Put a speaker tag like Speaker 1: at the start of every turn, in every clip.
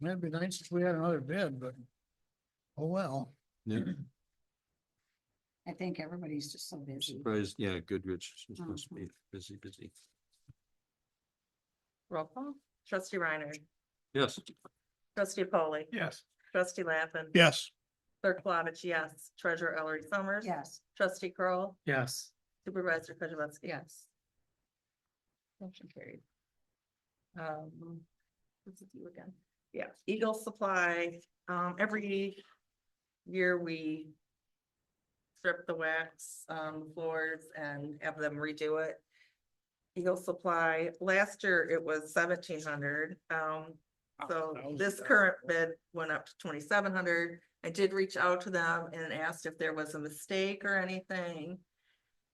Speaker 1: That'd be nice if we had another bid, but, oh, well.
Speaker 2: Yeah,
Speaker 3: I think everybody's just so busy.
Speaker 2: surprised, yeah, Goodrich is supposed to
Speaker 3: Mhm.
Speaker 2: be busy, busy.
Speaker 4: Roll call. Trustee Reiner.
Speaker 2: Yes,
Speaker 4: Trustee Polly.
Speaker 1: Yes.
Speaker 4: Trustee Lappin.
Speaker 1: Yes.
Speaker 4: Clerk Plavich, yes. Treasurer Ellery Summers.
Speaker 3: Yes,
Speaker 4: Trustee Kroll,
Speaker 1: Yes.
Speaker 4: Supervisor Kozibowski, yes. Motion carried. Um, this is you again. Yeah, Eagle Supply, um, every year we strip the wax, um, floors and have them redo it. Eagle Supply, last year it was seventeen hundred, um, so this current bid went up to twenty-seven hundred. I did reach out to them and asked if there was a mistake or anything.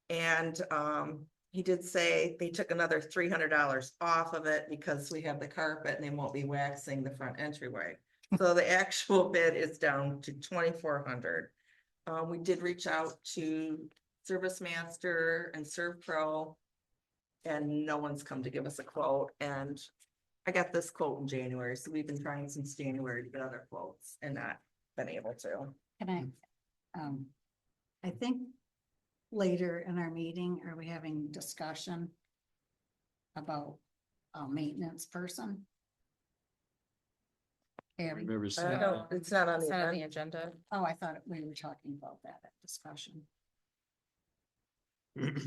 Speaker 4: And um, he did say they took another three hundred dollars off of it because we have the carpet and they won't be waxing the front entryway. So the actual bid is down to twenty-four hundred. Uh, we did reach out to Service Master and Serve Pro. And no one's come to give us a quote and I got this quote in January, so we've been trying since January to get other quotes and not been able to.
Speaker 3: can I? Um, I think later in our meeting, are we having discussion about a maintenance person? Eric,
Speaker 2: remember
Speaker 4: I
Speaker 2: seeing,
Speaker 4: don't, it's not on the
Speaker 5: It's not on
Speaker 4: agenda.
Speaker 5: the agenda.
Speaker 3: oh, I thought we were talking about that at discussion.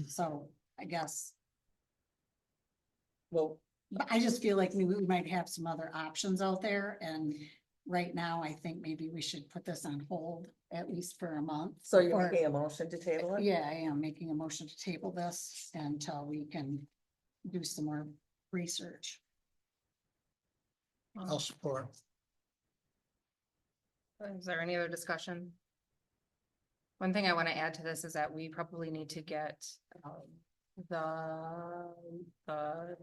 Speaker 3: So I guess,
Speaker 4: Well,
Speaker 3: but I just feel like we, we might have some other options out there and right now I think maybe we should put this on hold at least for a month.
Speaker 4: so you're
Speaker 3: or-
Speaker 4: making a motion to table it?
Speaker 3: Yeah, I am making a motion to table this until we can do some more research.
Speaker 1: I'll support.
Speaker 5: Is there any other discussion? One thing I want to add to this is that we probably need to get um, the, the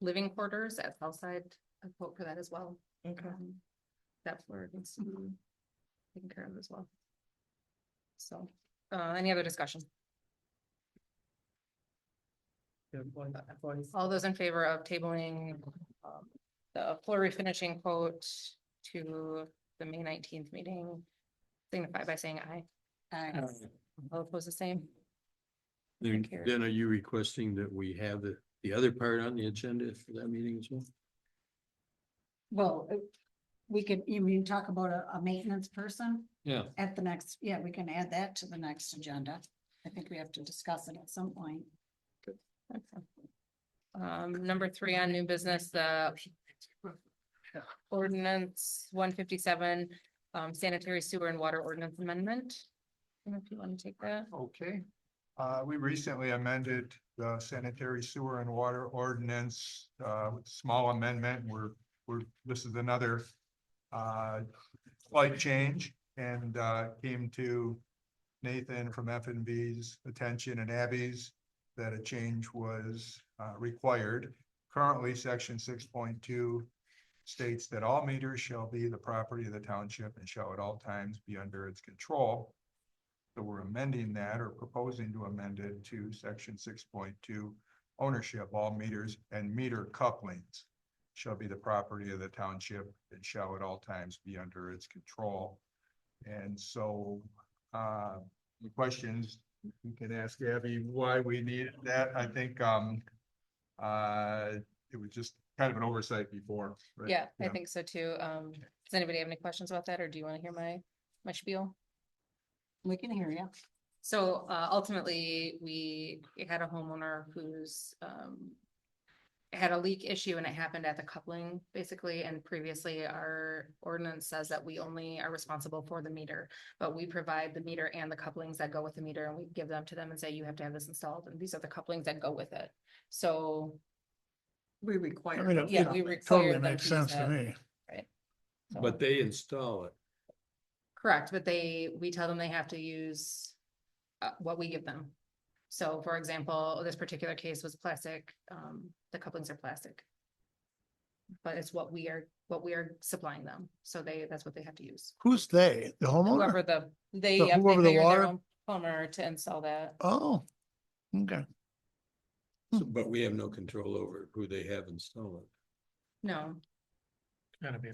Speaker 5: living quarters at Southside, a quote for that as well.
Speaker 4: Okay.
Speaker 5: Um, That floor needs to be taken care of as well. So, uh, any other discussion? All those in favor of tabling um, the floor refinishing quote to the May nineteenth meeting? Signify by saying aye.
Speaker 3: Uh,
Speaker 5: All opposed the same?
Speaker 2: then
Speaker 5: Carrie.
Speaker 2: then are you requesting that we have the, the other part on the agenda for that meeting as well?
Speaker 3: Well, it- we can, you mean talk about a, a maintenance person
Speaker 2: Yeah,
Speaker 3: at the next, yeah, we can add that to the next agenda. I think we have to discuss it at some point.
Speaker 5: Okay. Um, number three on new business, the ordinance one fifty-seven, um, sanitary sewer and water ordinance amendment. I don't know If you want to take that,
Speaker 6: Okay, uh, we recently amended the sanitary sewer and water ordinance, uh, with small amendment, we're, we're, this is another. Uh, slight change and, uh, came to Nathan from F and B's attention and Abby's. That a change was, uh, required. Currently, section six point two. States that all meters shall be the property of the township and shall at all times be under its control. So we're amending that or proposing to amend it to section six point two, ownership, all meters and meter couplings shall be the property of the township and shall at all times be under its control. And so, uh, the questions, you can ask Abby why we needed that. I think, um, uh, it was just kind of an oversight before. right?
Speaker 5: yeah, I think so too, um, does anybody have any questions about that, or do you want to hear my, my spiel?
Speaker 3: We can hear you.
Speaker 5: So uh ultimately, we had a homeowner who's um. Had a leak issue and it happened at the coupling basically, and previously our ordinance says that we only are responsible for the meter. But we provide the meter and the couplings that go with the meter and we give them to them and say, you have to have this installed, and these are the couplings that go with it. So,
Speaker 4: We require.
Speaker 1: I mean, it-
Speaker 5: yeah, we
Speaker 1: it
Speaker 5: require
Speaker 1: totally
Speaker 5: them
Speaker 1: makes
Speaker 5: to use
Speaker 1: sense to
Speaker 5: that.
Speaker 1: me.
Speaker 5: so-
Speaker 2: but they install it.
Speaker 5: Correct, but they, we tell them they have to use uh, what we give them. So for example, this particular case was plastic, um, the couplings are plastic. But it's what we are, what we are supplying them, so they, that's what they have to use.
Speaker 1: Who's they? The
Speaker 5: Whoever
Speaker 1: homeowner?
Speaker 5: the, they.
Speaker 1: So
Speaker 5: yep, they
Speaker 1: whoever the
Speaker 5: hired their
Speaker 1: water-
Speaker 5: own Plumber to install that,
Speaker 1: Oh, okay.
Speaker 2: So- But we have no control over who they have installed.
Speaker 5: no.
Speaker 1: Gotta be